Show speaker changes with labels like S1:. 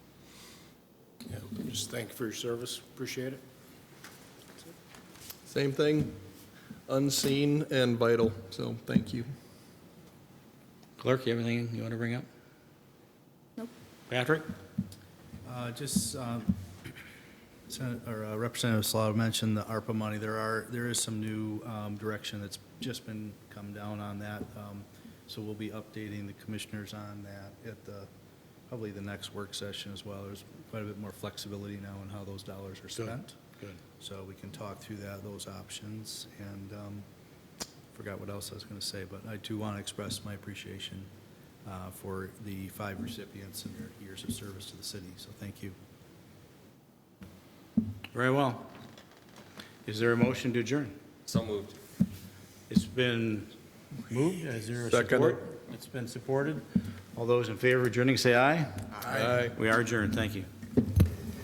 S1: Just thank you for your service. Appreciate it.
S2: Same thing, unseen and vital, so thank you.
S3: Clerk, you have anything you want to bring up? Nope. Patrick?
S4: Uh, Just, um, Sen- or uh, Representative Salata mentioned the ARPA money. There are, there is some new um, direction that's just been come down on that. Um, So we'll be updating the commissioners on that at the, probably the next work session as well. There's quite a bit more flexibility now in how those dollars are spent.
S3: Good.
S4: So we can talk through that, those options. And um, forgot what else I was going to say, but I do want to express my appreciation uh, for the five recipients and their years of service to the city. So thank you.
S3: Very well. Is there a motion to adjourn?
S5: So moved.
S3: It's been moved. Is there a
S2: Second.
S3: support? It's been supported. All those in favor of adjourning, say aye.
S2: Aye.
S3: We are adjourned. Thank you.